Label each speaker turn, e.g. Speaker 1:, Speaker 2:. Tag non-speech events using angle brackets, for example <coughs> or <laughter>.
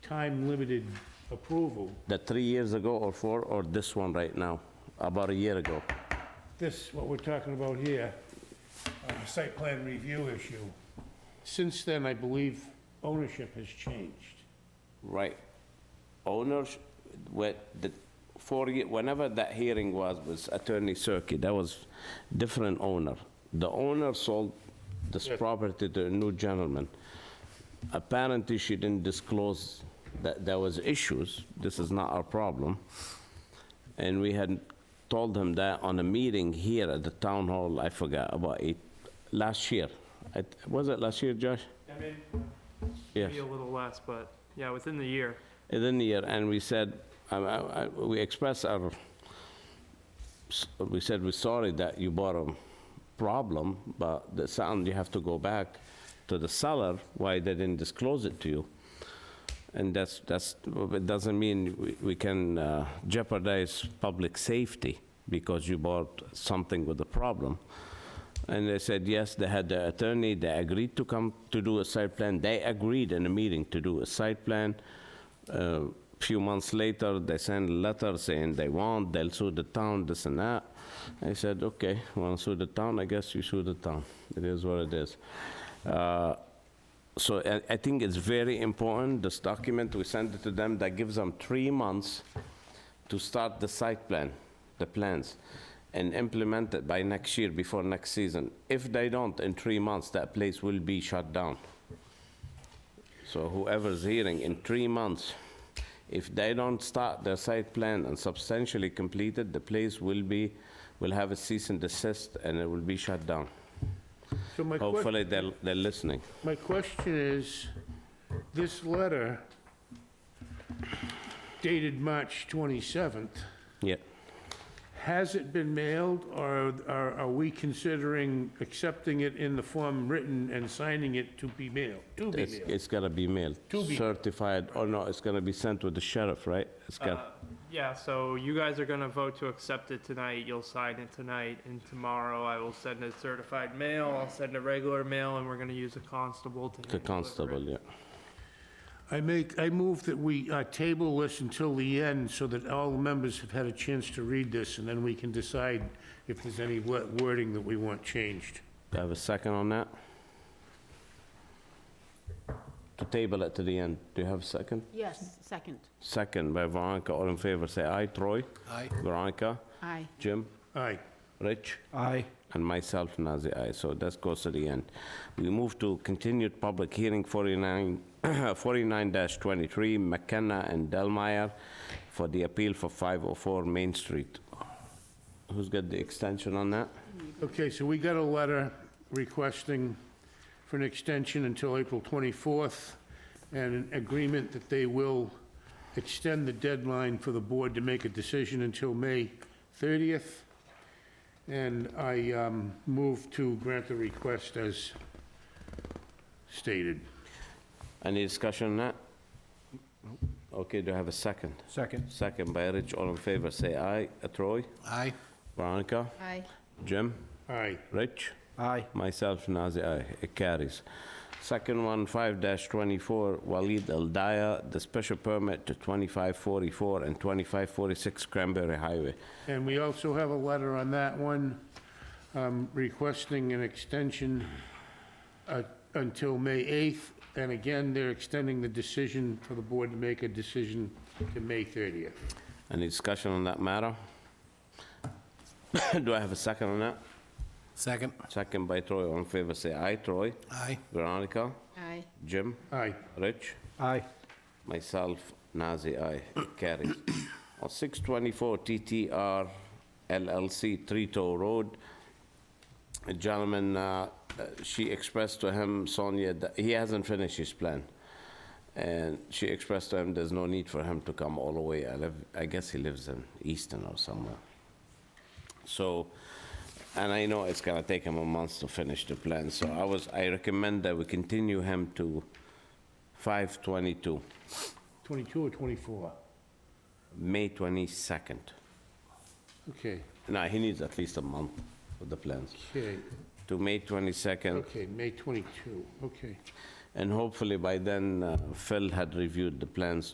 Speaker 1: time-limited approval,
Speaker 2: The three years ago or four, or this one right now, about a year ago?
Speaker 1: this, what we're talking about here, uh, the site plan review issue, since then, I believe ownership has changed.
Speaker 2: Right. Owners, what, the, for, ye- whenever that hearing was, was Attorney Circuit, that was different owner. The owner sold this
Speaker 1: Yes.
Speaker 2: property to a new gentleman. Apparently, she didn't disclose that there was issues. This is not our problem. And we had told him that on a meeting here at the town hall, I forgot, about eight, last year. It- Was it last year, Josh?
Speaker 3: I mean,
Speaker 2: Yes.
Speaker 3: maybe a little less, but yeah, within the year.
Speaker 2: within the year, and we said, um, I- I- we expressed our, s- we said, we're sorry that you bought a problem, but the sound, you have to go back to the seller, why they didn't disclose it to you. And that's, that's, it doesn't mean we- we can uh, jeopardize public safety because you bought something with a problem. And they said, yes, they had their attorney, they agreed to come to do a site plan. They agreed in a meeting to do a site plan. A few months later, they sent a letter saying they want, they'll sue the town, this and that. I said, okay, want to sue the town, I guess you sue the town. It is what it is. Uh, So I- I think it's very important, this document, we send it to them, that gives them three months to start the site plan, the plans, and implement it by next year, before next season. If they don't, in three months, that place will be shut down. So whoever's hearing, in three months, if they don't start their site plan and substantially complete it, the place will be, will have a cease and desist, and it will be shut down.
Speaker 1: So my question...
Speaker 2: Hopefully, they're, they're listening.
Speaker 1: My question is, this letter dated March 27th,
Speaker 2: Yeah.
Speaker 1: has it been mailed, or are are we considering accepting it in the form written and signing it to be mailed? To be
Speaker 2: It's,
Speaker 1: mailed.
Speaker 2: it's gotta be mailed,
Speaker 1: To be-
Speaker 2: certified, or no, it's gonna be sent to the sheriff, right? It's
Speaker 3: Uh,
Speaker 2: got,
Speaker 3: Yeah, so you guys are gonna vote to accept it tonight, you'll sign it tonight, and tomorrow I will send a certified mail, I'll send a regular mail, and we're gonna use a constable to.
Speaker 2: the
Speaker 3: hand deliver
Speaker 2: constable,
Speaker 3: it.
Speaker 2: yeah.
Speaker 1: I make, I move that we uh, table this until the end so that all the members have had a chance to read this, and then we can decide if there's any wo- wording that we want changed.
Speaker 2: Do I have a second on that? To table it to the end, do you have a second?
Speaker 4: Yes, second.
Speaker 2: Second by Veronica, all in favor, say aye. Troy? Aye. Veronica?
Speaker 4: Aye.
Speaker 2: Jim?
Speaker 1: Aye.
Speaker 2: Rich?
Speaker 1: Aye.
Speaker 2: And myself, Nazir, aye. So that goes to the end. We move to continued public hearing 49 <coughs> 49-23 McKenna and Delmeyer for the appeal for 504 Main Street. Who's got the extension on that?
Speaker 1: Okay, so we got a letter requesting for an extension until April 24th, and an agreement that they will extend the deadline for the board to make a decision until May 30th. And I um, move to grant the request as stated.
Speaker 2: Any discussion on that? Okay, do I have a second?
Speaker 5: Second.
Speaker 2: Second by Rich, all in favor, say aye. Uh, Troy?
Speaker 5: Aye.
Speaker 2: Veronica?
Speaker 4: Aye.
Speaker 2: Jim?
Speaker 1: Aye.
Speaker 2: Rich?
Speaker 5: Aye.
Speaker 2: Myself, Nazir, aye. It carries. Second one, 5-24, Walid El Daya, the special permit to 2544 and 2546 Cranberry Highway.
Speaker 1: And we also have a letter on that one um, requesting an extension uh, until May 8th. And again, they're extending the decision for the board to make a decision to May 30th.
Speaker 2: Any discussion on that matter? <coughs> Do I have a second on that?
Speaker 5: Second.
Speaker 2: Second by Troy, all in favor, say aye. Troy?
Speaker 5: Aye.
Speaker 2: Veronica?
Speaker 4: Aye.
Speaker 2: Jim?
Speaker 1: Aye.
Speaker 2: Rich?
Speaker 5: Aye.
Speaker 2: Myself, Nazir, aye. It carries. On 624 TTR LLC, Trito Road, a gentleman, uh, uh, she expressed to him, Sonia, that he hasn't finished his plan. And she expressed to him, there's no need for him to come all the way. I live, I guess he lives in Easton or somewhere. So, and I know it's gonna take him a month to finish the plan, so I was, I recommend that we continue him to 522.
Speaker 1: 22 or 24?
Speaker 2: May 22nd.
Speaker 1: Okay,
Speaker 2: No, he needs at least a month with the plans.
Speaker 1: okay,
Speaker 2: To May 22nd,
Speaker 1: okay, May 22, okay.
Speaker 2: And hopefully by then, uh, Phil had reviewed the plans